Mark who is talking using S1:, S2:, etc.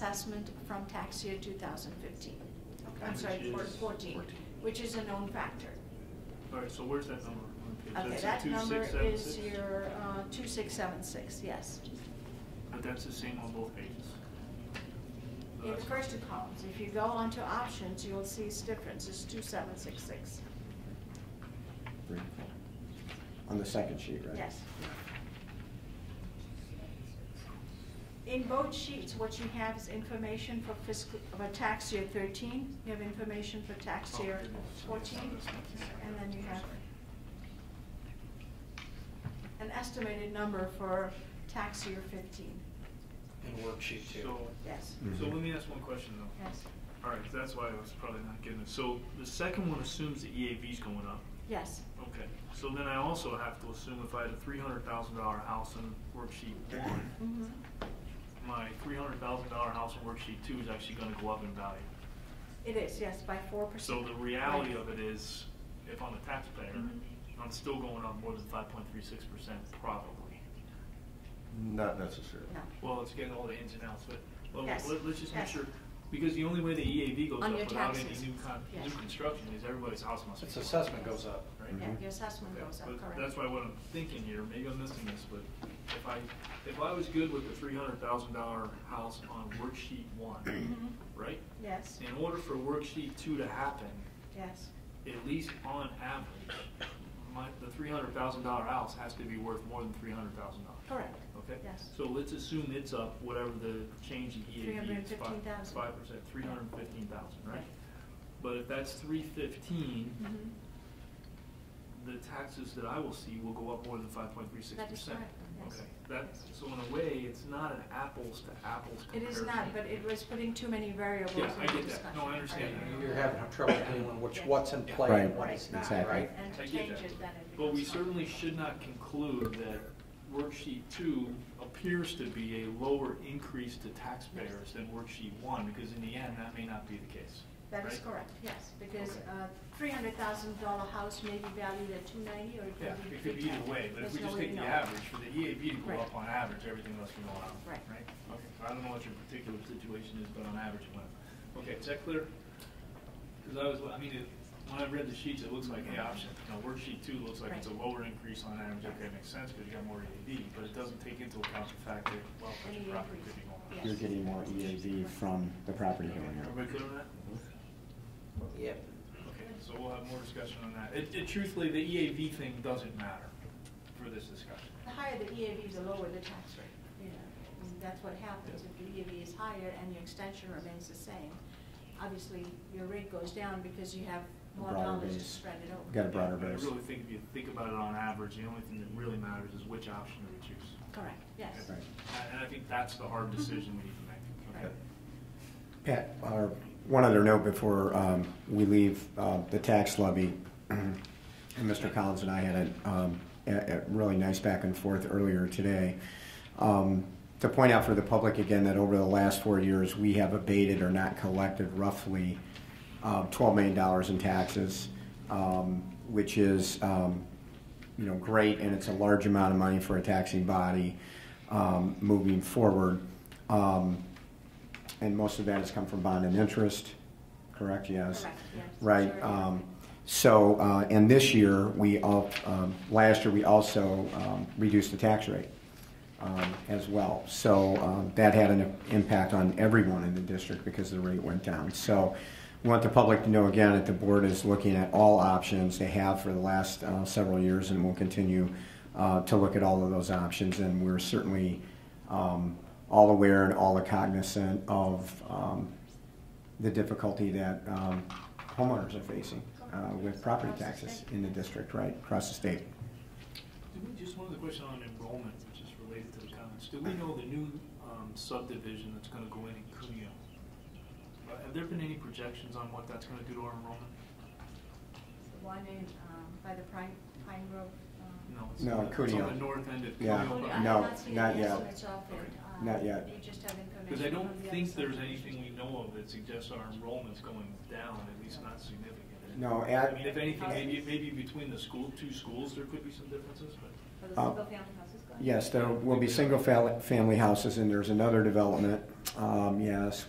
S1: assessment from tax year two thousand fifteen.
S2: Okay.
S1: I'm sorry,
S2: Which
S1: four-
S2: is-
S1: fourteen, which is a known factor.
S2: All right, so where's that number? on the page?
S1: Okay,
S2: That's a
S1: that number
S2: 2676?
S1: is your, uh, two six seven six, yes.
S2: But that's the same on both pages. So
S1: In the
S2: that's-
S1: first two columns, if you go onto options, you'll see it's difference, it's two seven six six,
S3: Three, four. On the second sheet, right?
S1: yes. In both sheets, what you have is information for fiscal, for tax year thirteen, you have information for tax
S2: Oh,
S1: year
S2: okay, that's-
S1: fourteen,
S2: that's- that's-
S1: and then you
S2: I'm
S1: have
S2: sorry.
S1: an estimated number for tax year fifteen,
S4: And worksheet two.
S2: So,
S1: yes,
S3: Mhm.
S2: so let me ask one question though.
S1: yes,
S2: All right, that's why I was probably not getting it. So the second one assumes the EAV's going up.
S1: yes,
S2: Okay, so then I also have to assume if I had a three hundred thousand dollar house in worksheet one,
S1: mhm,
S2: my three hundred thousand dollar house in worksheet two is actually gonna go up in value.
S1: it is, yes, by four
S2: So
S1: percent.
S2: the reality of it is, if I'm a taxpayer,
S1: Mhm.
S2: I'm still going up more than five point three six percent probably.
S5: Not necessarily.
S1: No,
S2: Well, it's getting all the ins and outs, but, well,
S1: Yes,
S2: let, let's just make
S1: yes.
S2: sure, because the only way the EAV goes
S1: On
S2: up
S1: your
S2: without any
S1: taxes,
S2: new con, new
S1: yes.
S2: construction is everybody's house must be.
S4: Its
S2: going up,
S4: assessment goes up.
S2: Right?
S1: yeah,
S3: Mhm.
S1: your assessment goes up,
S2: But
S1: correct.
S2: That's why what I'm thinking here, maybe I'm missing this, but if I, if I was good with the three hundred thousand dollar house on worksheet one,
S1: Mhm.
S2: right?
S1: Yes,
S2: In order for worksheet two to happen,
S1: yes,
S2: at least on average, my, the three hundred thousand dollar house has to be worth more than three hundred thousand dollars.
S1: correct.
S2: Okay?
S1: Yes.
S2: So let's assume it's up, whatever the change in EAV is, five,
S1: 315,000.
S2: five percent, three hundred and fifteen thousand, right? But if that's three fifteen,
S1: Mhm.
S2: the taxes that I will see will go up more than five point three six
S1: Mm-hmm. That is
S2: percent.
S1: correct, yes.
S2: Okay, that, so in a way, it's not an apples to apples
S1: It
S2: comparison.
S1: is not, but it was putting too many variables in
S2: Yeah,
S1: the
S2: I get that.
S1: discussion.
S2: No, I understand that.
S4: You're having trouble dealing with what's in play
S3: Right,
S4: and what is not,
S3: exactly.
S4: right?
S1: And
S2: I
S1: to
S2: get
S1: change
S2: that.
S1: it, then it becomes.
S2: But we
S1: not-
S2: certainly should not conclude that worksheet two appears to be a lower increase to taxpayers than worksheet one, because in the end, that may not be the case.
S1: That is
S2: right?
S1: correct, yes, because
S2: Okay.
S1: uh three hundred thousand dollar house may be valued at two ninety or it
S2: Yeah,
S1: could be.
S2: it could be either
S1: 310.
S2: way, but if
S1: There's
S2: we
S1: no way
S2: just take
S1: to
S2: the
S1: know.
S2: average, for the EAV to
S1: Right.
S2: go up on average, everything else can go up.
S1: Right.
S2: Right? Okay, so I don't know what your particular situation is, but on average it went up. Okay, is that clear? Because I was, I mean, it- when I read the sheets, it looks like, hey, option, now worksheet two looks like it's a
S1: Right.
S2: lower increase on average, okay, makes sense, because you got more EAV, but it doesn't take into account the fact that, well,
S1: Any
S2: your property could be
S1: increase,
S2: going up.
S1: yes.
S3: You're getting more EAV from the property going up.
S2: Everybody clear on that?
S1: Mm-hmm.
S4: Yep.
S2: Okay, so we'll have more discussion on that. It, it truthfully, the EAV thing doesn't matter for this discussion.
S1: The higher the EAV, the lower the tax rate, you know, and that's what happens. If the EAV is higher and your extension remains the same, obviously your rate goes down because you have
S3: A
S1: more
S3: broader
S1: dollars to
S3: base.
S1: spread it over.
S3: Got a broader
S2: But I
S3: base.
S2: really think if you think about it on average, the only thing that really matters is which option do we choose.
S1: Correct, yes.
S3: Right.
S2: And- And I think that's the hard decision we need to make.
S1: Right.
S3: Pat, uh, one other note before um, we leave uh, the tax levy. And Mr. Collins and I had a, um, a, a really nice back and forth earlier today. Um, to point out for the public again that over the last four years, we have abated or not collected roughly uh, $12 million in taxes, um, which is um, you know, great, and it's a large amount of money for a taxing body um, moving forward. Um, and most of that has come from bond and interest, correct? Yes.
S1: Correct, yes.
S3: Right.
S1: Majority
S3: um,
S1: of it.
S3: So, uh, and this year, we, al- um, last year, we also um, reduced the tax rate um, as well. So um, that had an impact on everyone in the district because the rate went down. So we want the public to know again that the board is looking at all options they have for the last uh, several years and will continue uh, to look at all of those options. And we're certainly um, all aware and all cognizant of um, the difficulty that um, homeowners are facing uh, with property taxes in the district, right, across the state.
S2: Do we, just one other question on enrollment, which is related to the comments. Do we know the new um, subdivision that's going to go in in Cuneo? Uh, Have there been any projections on what that's going to do to our enrollment?
S1: One in, um, by the Pine, Pine Grove. um,
S2: No. it's
S3: No,
S2: on the- It's
S3: Cuneo.
S2: on the north end of
S3: Yeah.
S2: Cuneo.
S1: Cody,
S2: but-
S1: I have
S3: No,
S1: seen
S3: not
S1: the
S3: yet.
S1: estimates of it. Um,
S3: Not yet.
S1: You just have information.
S2: Because I don't
S1: from the
S2: think
S1: outside.
S2: there's anything we know of that suggests our enrollment's going down, at least not significant.
S3: No,
S2: I
S3: at-
S2: mean, if anything, maybe, maybe between the school, two schools, there could be some differences, but.
S6: Are the
S3: Uh,
S6: single-family houses go
S1: right?
S3: Yes, there will be single-family houses, and there's another development, um, yes,